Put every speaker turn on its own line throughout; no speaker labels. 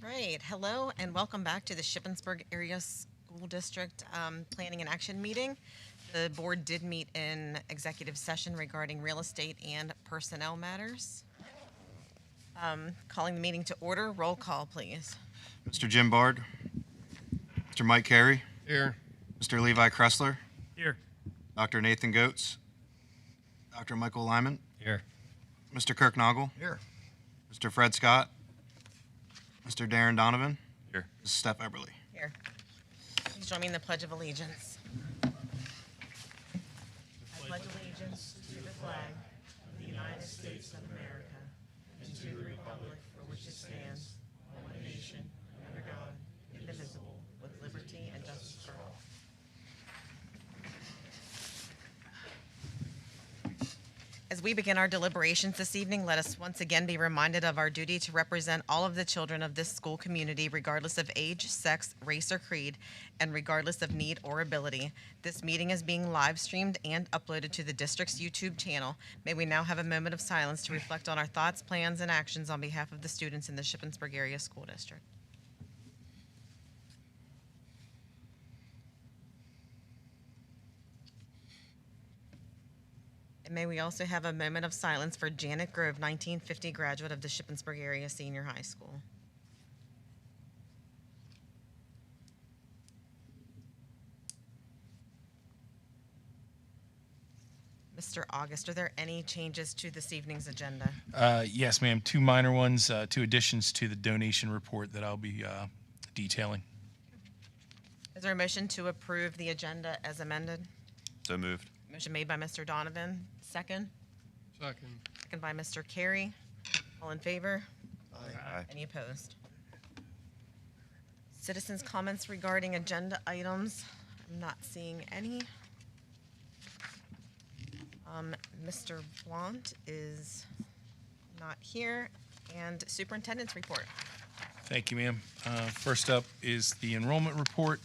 Great. Hello and welcome back to the Shippensburg Area School District um, Planning and Action Meeting. The board did meet in executive session regarding real estate and personnel matters. Um, Calling the meeting to order. Roll call, please.
Mr. Jim Bard. Mr. Mike Carey.
Here.
Mr. Levi Kressler.
Here.
Dr. Nathan Goetz. Dr. Michael Lyman.
Here.
Mr. Kirk Noggle.
Here.
Mr. Fred Scott. Mr. Darren Donovan.
Here.
Mrs. Steph Eberly.
Here. Please join me in the Pledge of Allegiance. I pledge allegiance to the flag of the United States of America and to the republic for which it stands, one nation, under God, indivisible, with liberty and justice for all. As we begin our deliberations this evening, let us once again be reminded of our duty to represent all of the children of this school community, regardless of age, sex, race, or creed, and regardless of need or ability. This meeting is being live streamed and uploaded to the district's YouTube channel. May we now have a moment of silence to reflect on our thoughts, plans, and actions on behalf of the students in the Shippensburg Area School District. And may we also have a moment of silence for Janet Grove, 1950 graduate of the Shippensburg Area Senior High School. Mr. August, are there any changes to this evening's agenda?
Uh, Yes, ma'am. Two minor ones, uh, two additions to the donation report that I'll be uh, detailing.
Is there a motion to approve the agenda as amended?
So moved.
Motion made by Mr. Donovan, second,
Second.
second by Mr. Carey. All in favor?
Aye.
Any opposed? Citizens' comments regarding agenda items. I'm not seeing any. Um, Mr. Blount is not here. And superintendent's report.
Thank you, ma'am. Uh, First up is the enrollment report.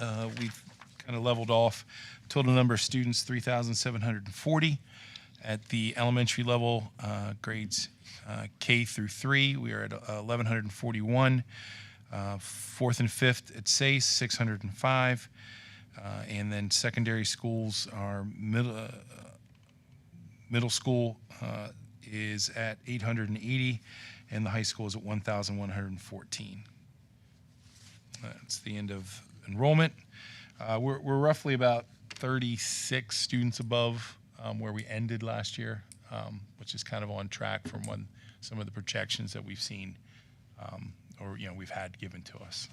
Uh, We've kind of leveled off. Total number of students, 3,740. At the elementary level, uh, grades uh, K through 3, we are at 1,141. Uh, Fourth and fifth at SACE, 605. Uh, And then secondary schools are middle, uh, middle school uh, is at 880 and the high school is at 1,114. That's the end of enrollment. Uh, We're we're roughly about 36 students above um, where we ended last year, um, which is kind of on track from when, some of the projections that we've seen um, or, you know, we've had given to us.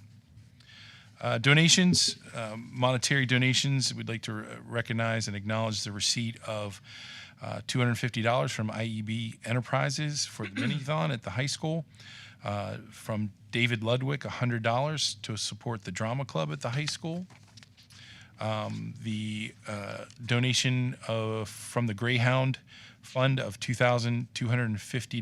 Uh, Donations, um, monetary donations, we'd like to re- recognize and acknowledge the receipt of uh, $250 from IEB Enterprises for the mini-thon at the high school, uh, from David Ludwig, $100 to support the drama club at the high school, Um, the uh, donation of, from the Greyhound Fund of $2,250